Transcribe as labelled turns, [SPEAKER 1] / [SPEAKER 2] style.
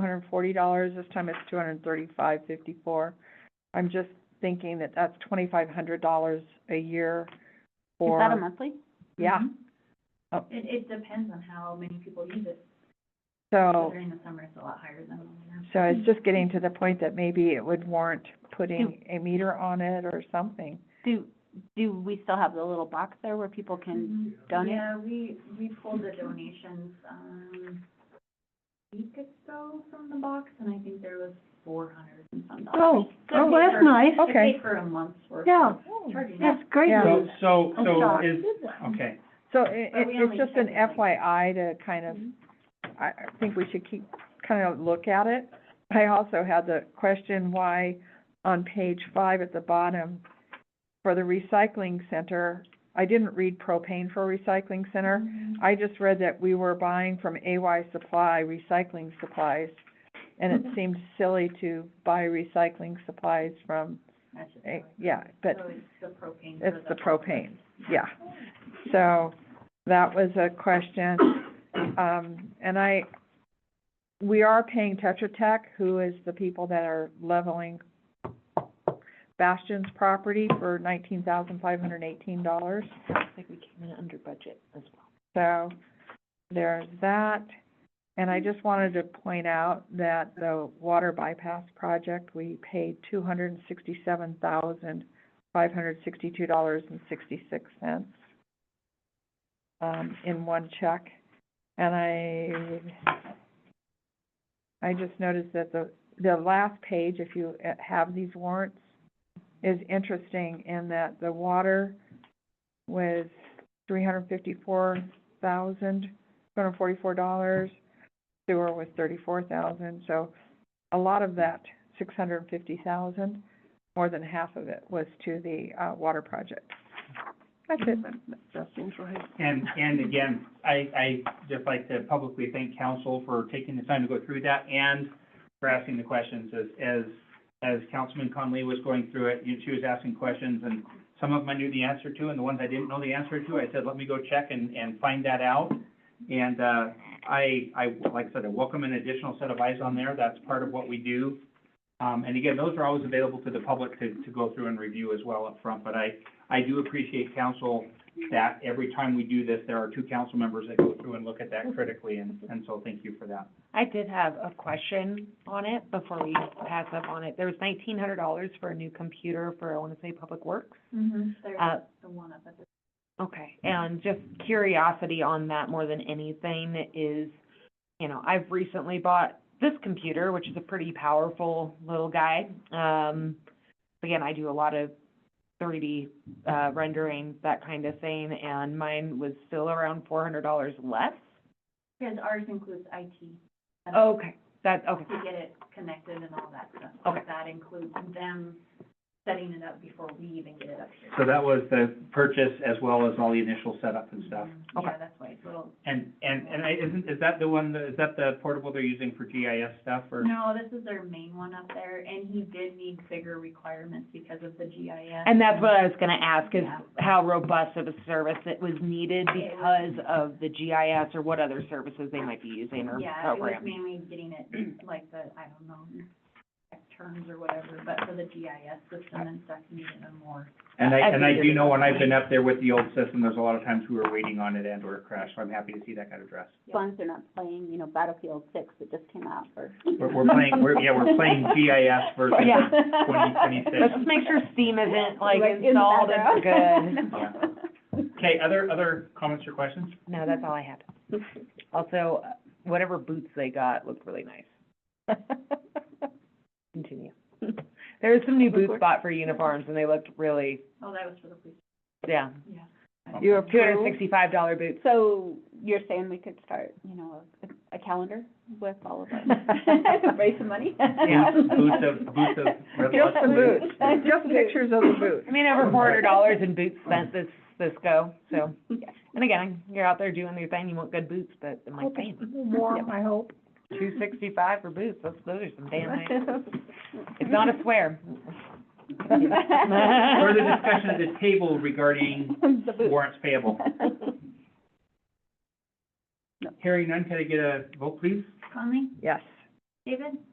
[SPEAKER 1] hundred and forty dollars, this time it's two hundred and thirty-five fifty-four. I'm just thinking that that's twenty-five hundred dollars a year
[SPEAKER 2] Is
[SPEAKER 1] for.
[SPEAKER 2] that a monthly?
[SPEAKER 1] Yeah, Oh.
[SPEAKER 3] Mm-hmm. It, it depends on how many people use it, so
[SPEAKER 1] so,
[SPEAKER 3] during the summer it's a lot higher than the winter.
[SPEAKER 1] Oh. so it's just getting to the point that maybe it would warrant putting a meter on it or something.
[SPEAKER 2] Do, do we still have the little box there where people can,
[SPEAKER 3] Mhm.
[SPEAKER 2] donate?
[SPEAKER 3] Yeah, we, we pulled the donations, um, a week ago from the box, and I think there was four hundred and some dollars.
[SPEAKER 2] oh, well, that's nice.
[SPEAKER 3] It
[SPEAKER 1] Okay.
[SPEAKER 3] paid for a month's worth.
[SPEAKER 2] Yeah.
[SPEAKER 3] of Charging
[SPEAKER 2] that's great
[SPEAKER 1] Yeah.
[SPEAKER 2] news.
[SPEAKER 4] So, so,
[SPEAKER 2] I'm
[SPEAKER 4] so
[SPEAKER 2] shocked.
[SPEAKER 4] is, okay,
[SPEAKER 1] So it,
[SPEAKER 3] But
[SPEAKER 1] it,
[SPEAKER 3] we
[SPEAKER 1] it's
[SPEAKER 3] only
[SPEAKER 1] just an
[SPEAKER 3] check it like-
[SPEAKER 1] FYI to kind
[SPEAKER 3] Mm-hmm.
[SPEAKER 1] of, I, I think we should keep, kind of look at it. I also had the question why on page five at the bottom, for the recycling center, I didn't read propane for recycling center. I just read that we were buying from AY Supply recycling supplies, and it seemed silly to buy recycling supplies from,
[SPEAKER 3] That's just
[SPEAKER 1] eh,
[SPEAKER 3] how it
[SPEAKER 1] yeah,
[SPEAKER 3] goes.
[SPEAKER 1] but
[SPEAKER 3] So it's the propane. for
[SPEAKER 1] it's the
[SPEAKER 3] box.
[SPEAKER 1] propane, yeah. So that was a question. Um, and I, we are paying Tetra Tech, who is the people that are leveling Bastion's property for nineteen thousand five hundred and eighteen dollars. So there's that. And I just wanted to point out that the water bypass project, we paid two hundred and sixty-seven thousand, five hundred sixty-two dollars and sixty-six cents um, in one check. And I, I just noticed that the, the last page, if you uh, have these warrants, is interesting in that the water was three hundred fifty-four thousand, two hundred forty-four dollars. Sewer was thirty-four thousand, so a lot of that, six hundred and fifty thousand, more than half of it was to the, uh, water project. That's it. That seems right.
[SPEAKER 4] and, and again, I, I just like to publicly thank council for taking the time to go through that and for asking the questions as, as, as Councilman Conley was going through it, you, she was asking questions, and some of them I knew the answer to, and the ones I didn't know the answer to, I said, let me go check and, and find that out. And, uh, I, I, like I said, I welcome an additional set of eyes on there, that's part of what we do. Um, and again, those are always available to the public to, to go through and review as well up front. but I, I do appreciate council that every time we do this, there are two council members that go through and look at that critically, and, and so thank you for that.
[SPEAKER 5] I did have a question on it before we pass up on it. There was nineteen hundred dollars for a new computer for, I want to say, Public Works.
[SPEAKER 3] Mhm.
[SPEAKER 5] Uh,
[SPEAKER 3] There's the one up at the,
[SPEAKER 5] Okay, and just curiosity on that more than anything is, you know, I've recently bought this computer, which is a pretty powerful little guy. Um, again, I do a lot of three D, uh, rendering, that kind of thing, and mine was still around four hundred dollars less.
[SPEAKER 3] because ours includes IT. and
[SPEAKER 1] Oh,
[SPEAKER 5] Okay, that, okay,
[SPEAKER 3] To get it connected and all that stuff.
[SPEAKER 5] Okay.
[SPEAKER 3] That includes them setting it up before we even get it up here.
[SPEAKER 4] So that was the purchase as well as all the initial setup and stuff.
[SPEAKER 3] Mhm.
[SPEAKER 5] Okay.
[SPEAKER 3] Yeah, that's why it's a little,
[SPEAKER 4] And, and, and I, isn't, is that the one, that- is that the portable they're using for GIS stuff, or?
[SPEAKER 3] no, this is their main one up there, and he did need bigger requirements because of the GIS.
[SPEAKER 5] And that's what I was gonna ask, is
[SPEAKER 3] Yeah.
[SPEAKER 5] how robust of a service it was needed because of the GIS or what other services they might be using or
[SPEAKER 3] Yeah, it was
[SPEAKER 5] programs.
[SPEAKER 3] mainly getting it, like the, I don't know, tech terms or whatever, but for the GIS system and stuff, you needed a more.
[SPEAKER 4] And I, and I do know when I've
[SPEAKER 5] Everything.
[SPEAKER 4] been up there with the old system, there's a lot of times we were waiting on it and or it crashed, so I'm happy to see that got addressed.
[SPEAKER 2] As long as they're not playing, you know, Battlefield Six that just came out or.
[SPEAKER 4] We're, we're playing, we're, yeah, we're playing GIS versus
[SPEAKER 5] Yeah.
[SPEAKER 4] twenty twenty-six.
[SPEAKER 5] Let's just make sure Steam isn't like
[SPEAKER 2] Like, in the
[SPEAKER 5] installed and
[SPEAKER 2] background.
[SPEAKER 5] good.
[SPEAKER 4] Okay, other, other comments or questions?
[SPEAKER 5] No, that's all I had. Also, whatever boots they got looked really nice. Continue. There was some new boot spot for uniforms and they looked really,
[SPEAKER 3] Oh, that was for the police,
[SPEAKER 5] yeah,
[SPEAKER 3] yeah.
[SPEAKER 1] You
[SPEAKER 5] two hundred and
[SPEAKER 1] approve?
[SPEAKER 5] sixty-five dollar boots.
[SPEAKER 2] So you're saying we could start, you know, a, a calendar with all of us, raise some money?
[SPEAKER 5] Yeah.
[SPEAKER 4] Boots of- boots of
[SPEAKER 1] Just the
[SPEAKER 4] Boots.
[SPEAKER 1] boots, just pictures of the boots.
[SPEAKER 5] I mean, over four hundred dollars in boots spent this, this go, so.
[SPEAKER 2] Yeah.
[SPEAKER 5] And again, you're out there doing your thing, you want good boots, but I'm like, damn,
[SPEAKER 1] Warm, I hope.
[SPEAKER 5] two sixty-five for boots, that's, those are some damn nice. It's not a swear.
[SPEAKER 4] Further discussion at the table regarding
[SPEAKER 2] The booth.
[SPEAKER 4] warrants payable. Hearing none, can I get a vote, please?
[SPEAKER 3] Conley,
[SPEAKER 1] Yes.
[SPEAKER 3] David?